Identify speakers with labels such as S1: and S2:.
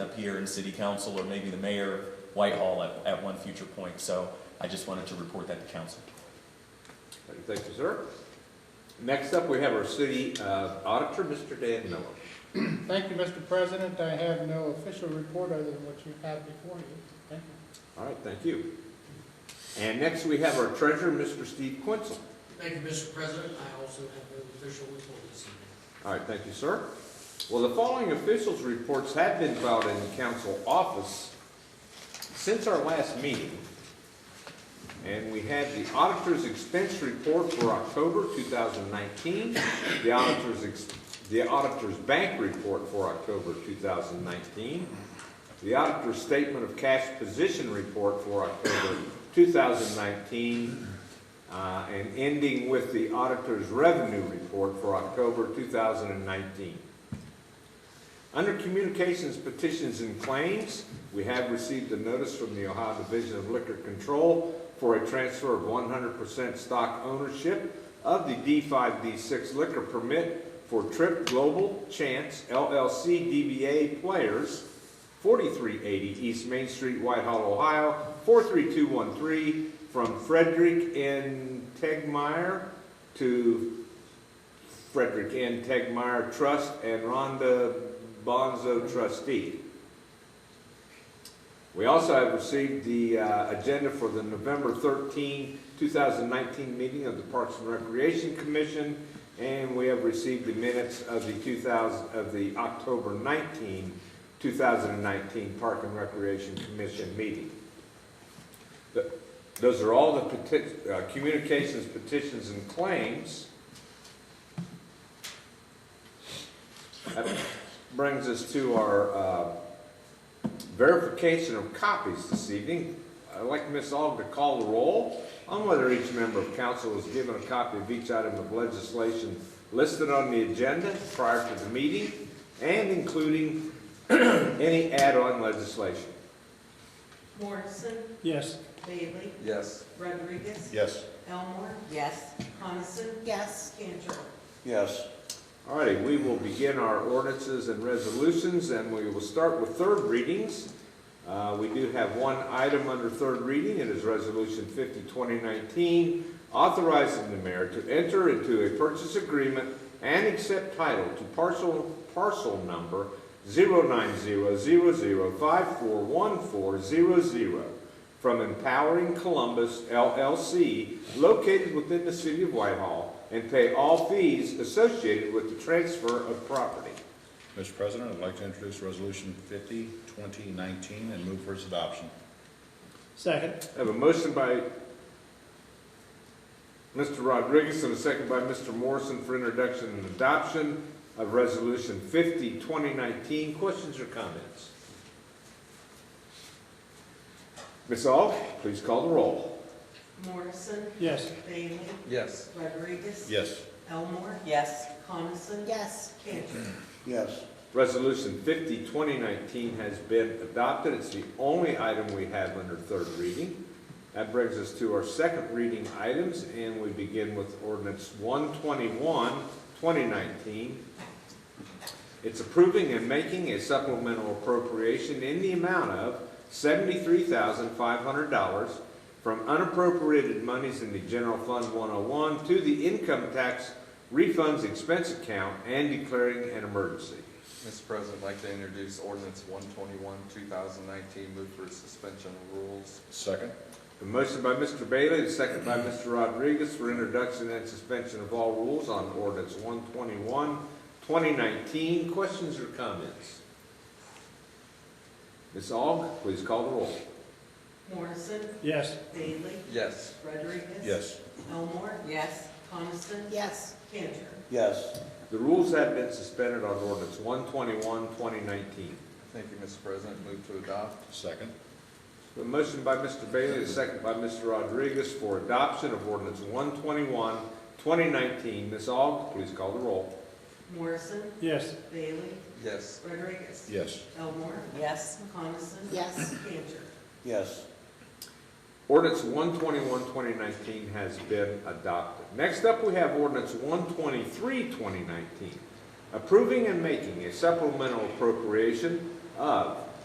S1: up here in city council or maybe the mayor of Whitehall at, at one future point. So I just wanted to report that to council.
S2: Thank you, sir. Next up, we have our city uh, auditor, Mr. Dan Miller.
S3: Thank you, Mr. President. I have no official report other than what you have before you. Thank you.
S2: All right, thank you. And next, we have our treasurer, Mr. Steve Quinzel.
S4: Thank you, Mr. President. I also have no official report this evening.
S2: All right, thank you, sir. Well, the following officials' reports have been filed in the council office since our last meeting. And we had the auditor's expense report for October 2019, the auditor's, ex- the auditor's bank report for October 2019, the auditor's statement of cash position report for October 2019, uh, and ending with the auditor's revenue report for October 2019. Under communications, petitions, and claims, we have received a notice from the Ohio Division of Liquor Control for a transfer of 100% stock ownership of the D5D6 liquor permit for Trip Global Chance LLC DBA Players, 4380 East Main Street, Whitehall, Ohio, 43213, from Frederick N. Tegmeyer to Frederick N. Tegmeyer Trust and Rhonda Bonzo trustee. We also have received the uh, agenda for the November 13, 2019 meeting of the Parks and Recreation Commission, and we have received the minutes of the 2000, of the October 19, 2019 Park and Recreation Commission meeting. Th- Those are all the peti- uh, communications, petitions, and claims. That brings us to our uh, verification of copies this evening. I'd like Ms. Aug to call the roll on whether each member of council was given a copy of each item of legislation listed on the agenda prior to the meeting and including any add-on legislation.
S5: Morrison,
S3: Yes.
S5: Bailey,
S6: Yes.
S5: Rodriguez,
S6: Yes.
S5: Elmore,
S7: Yes.
S5: Coniston,
S7: Yes.
S5: Cantor.
S6: Yes.
S2: All righty, we will begin our ordinances and resolutions, and we will start with third readings. Uh, We do have one item under third reading, it is Resolution 50, 2019, authorizing the mayor to enter into a purchase agreement and accept title to parcel, parcel number 09000541400 from Empowering Columbus LLC, located within the city of Whitehall, and pay all fees associated with the transfer of property.
S6: Mr. President, I'd like to introduce Resolution 50, 2019, and move for its adoption.
S3: Second.
S2: I have a motion by Mr. Rodriguez and a second by Mr. Morrison for introduction and adoption of Resolution 50, 2019. Questions or comments? Ms. Aug, please call the roll.
S5: Morrison,
S3: Yes.
S5: Bailey,
S6: Yes.
S5: Rodriguez.
S6: Yes.
S5: Elmore,
S7: Yes.
S5: Coniston.
S7: Yes.
S5: Cantor.
S6: Yes.
S2: Resolution 50, 2019 has been adopted. It's the only item we have under third reading. That brings us to our second reading items, and we begin with ordinance 121, 2019. It's approving and making a supplemental appropriation in the amount of $73,500 from unappropriated monies in the General Fund 101 to the Income Tax Refunds Expense Account and declaring an emergency.
S8: Mr. President, I'd like to introduce ordinance one twenty-one, two thousand nineteen, move for suspension of rules.
S6: Second?
S2: A motion by Mr. Bailey, and a second by Mr. Rodriguez for introduction and suspension of all rules on ordinance 121, 2019. Questions or comments? Ms. Aug, please call the roll.
S5: Morrison,
S3: Yes.
S5: Bailey,
S8: Yes.
S5: Rodriguez.
S6: Yes.
S5: Elmore,
S7: Yes.
S5: Coniston,
S7: Yes.
S5: Cantor.
S6: Yes.
S2: The rules have been suspended on ordinance 121, 2019.
S8: Thank you, Mr. President, move to adopt.
S6: Second?
S2: A motion by Mr. Bailey, and a second by Mr. Rodriguez for adoption of ordinance 121, 2019. Ms. Aug, please call the roll.
S5: Morrison,
S3: Yes.
S5: Bailey,
S8: Yes.
S5: Rodriguez.
S6: Yes.
S5: Elmore,
S7: Yes.
S5: Coniston.
S7: Yes.
S5: Cantor.
S6: Yes.
S2: Ordinance 121, 2019 has been adopted. Next up, we have ordinance 123, 2019, approving and making a supplemental appropriation of